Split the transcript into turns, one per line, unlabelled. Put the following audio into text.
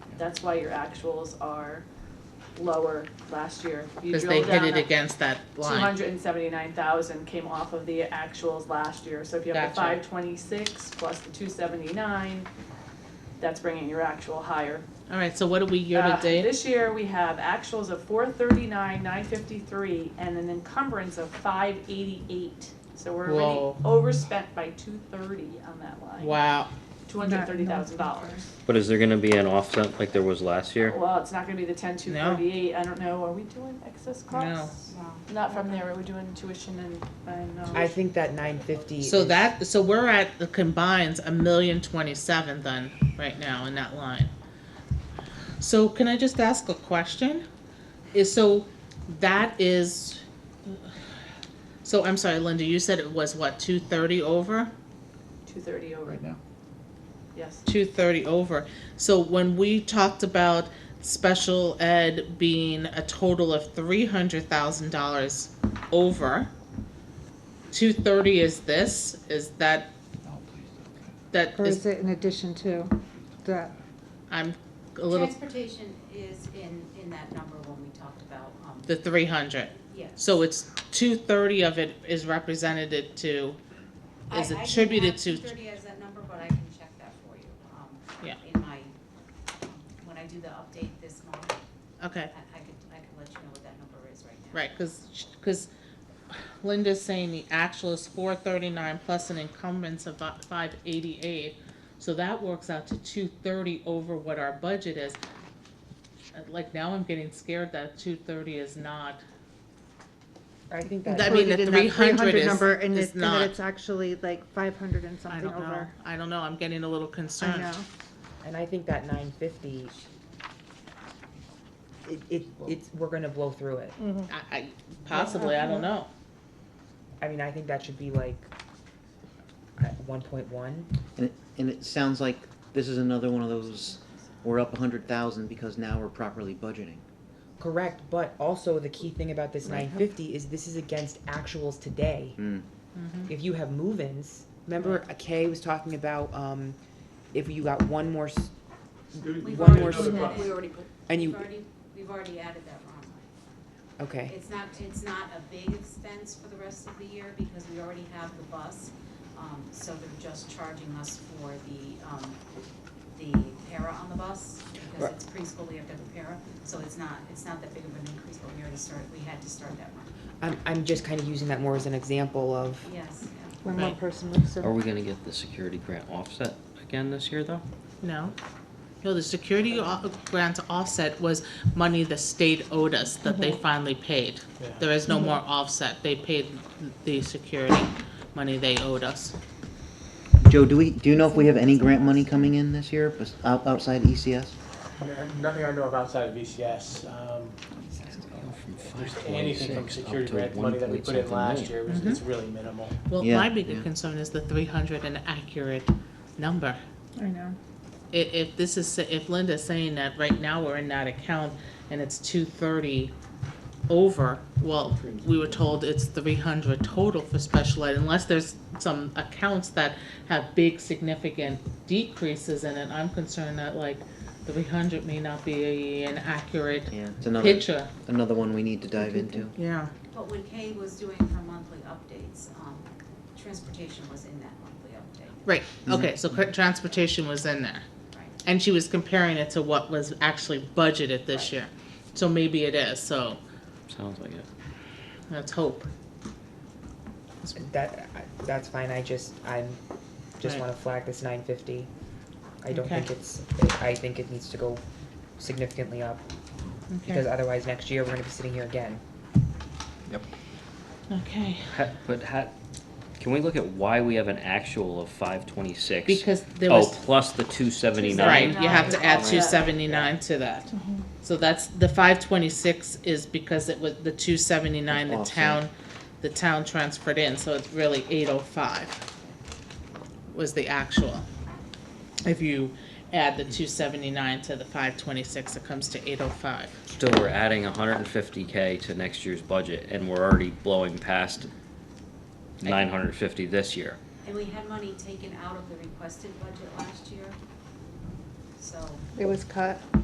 That's why your actuals are lower last year. You
Cause they
drilled
hit
down
it
at-
against that
Two
line.
hundred and seventy-nine thousand came off of the actuals last year, so if you have the
Gotcha.
five twenty-six plus the two seventy-nine, that's bringing your actual higher.
Alright, so what are we year
Uh,
to date?
This year, we have actuals of four thirty-nine, nine fifty-three, and an encumbrance of five eighty-eight. So we're
Whoa.
already overspent by two thirty on that line,
Wow,
two hundred and thirty thousand dollars.
But is there gonna be an offset like there was last year?
Well, it's not gonna be the ten two
No.
forty-eight, I don't know, are we doing excess costs? No. Not from there, we're doing tuition and, and, um.
I think that nine fifty.
so that, so we're at the combines, a million twenty-seven then, right now in that line. So can I just ask a question? Is, so that is, so I'm sorry, Linda, you said it was what, two thirty over?
Two thirty over,
right now.
yes.
two thirty over. So when we talked about special ed being a total of three hundred thousand dollars over, two thirty is this, is that,
No, please don't.
that
Or is
is,
it in addition to that?
I'm a little,
Transportation is in, in that number when we talked about, um,
the three hundred.
yes.
So it's two thirty of it is represented to, is
I- I can
attributed
have
to-
230 as that number, but I can check that for you. um,
Yeah.
In my, um, when I do the update this month, I,
okay,
I could, I could let you know what that number is right now.
right, cause, sh- cause Linda's saying the actual is four thirty-nine plus an encumbrance of five eighty-eight. So that works out to two thirty over what our budget is. Uh, Like now I'm getting scared that two thirty is not,
I think
I
that,
mean, the
Included in that
300 is-
number and
is
it- and that
not.
it's actually like five hundred and
I
something
don't know,
over.
I don't know, I'm getting a little
I
concerned.
know.
and I think that nine fifty. It, it, it's, we're gonna blow through it.
I, I, possibly, I don't know.
I mean, I think that should be like one point one.
And it, and it sounds like this is another one of those, we're up a hundred thousand because now we're properly budgeting.
Correct, but also the key thing about this
Right.
nine fifty is this is against actuals today.
Mm.
If you have move-ins, remember Kay was talking about, um, if you got one more, s-
We've
One
already
more
put that
step.
in. We already put-
and
We've
you,
already, we've already added that wrong line.
okay,
It's not, it's not a big expense for the rest of the year because we already have the bus. Um, so they're just charging us for the, um, the para on the bus because
Right.
it's preschool, we have to have a para. So it's not, it's not that big of an increase, but we already started, we had to start that one.
I'm, I'm just kind of using that more as an example of,
Yes,
When one
Right.
person moves
Are
in.
we gonna get the security grant offset again this year though?
No. No, the security o- grant offset was money the state owed us that they finally paid. There is no more offset. They paid the security money they owed us.
Joe, do we, do you know if we have any grant money coming in this year, bes- out- outside E ECS?
No- Nothing I know of outside of VCS. Um, there's anything from security grant money that we put in last year, was- it's really minimal.
Well,
Yeah,
my bigger
yeah.
concern is the three hundred and accurate number.
I know.
I- if this is, sa- if Linda's saying that right now we're in that account and it's two thirty over, well, we were told it's three hundred total for special ed, unless there's some accounts that have big significant decreases in it, I'm concerned that like three hundred may not be an accurate
Yeah, it's another,
picture.
another one we need to dive into.
Yeah.
But when Kay was doing her monthly updates, um, transportation was in that monthly update,
Right, okay, so cr- transportation was in there,
right?
and she was comparing it to what was actually budgeted this
Right.
year, so maybe it is, so
Sounds like it.
let's hope.
that, I- that's fine, I just, I'm, just
Right.
wanna flag this nine fifty. I don't
Okay.
think it's, I think it needs to go significantly up, because otherwise next year we're gonna be sitting here again.
Okay,
Ha- But ha, can we look at why we have an actual of five twenty-six?
because there
Oh,
was,
plus the two seventy-nine?
right, Oh, Mm-hmm. you have to add
Right.
two seventy-nine to that. So that's, the five twenty-six is because it was the two seventy-nine the
Offset.
town, the town transferred in, so it's really eight oh five was the actual. If you add the two seventy-nine to the five twenty-six, it comes to eight oh five.
Still, we're adding hundred and fifty K to next year's budget and we're already blowing past nine hundred and fifty this year.
And we had money taken out of the requested budget last year, so.
It was cut.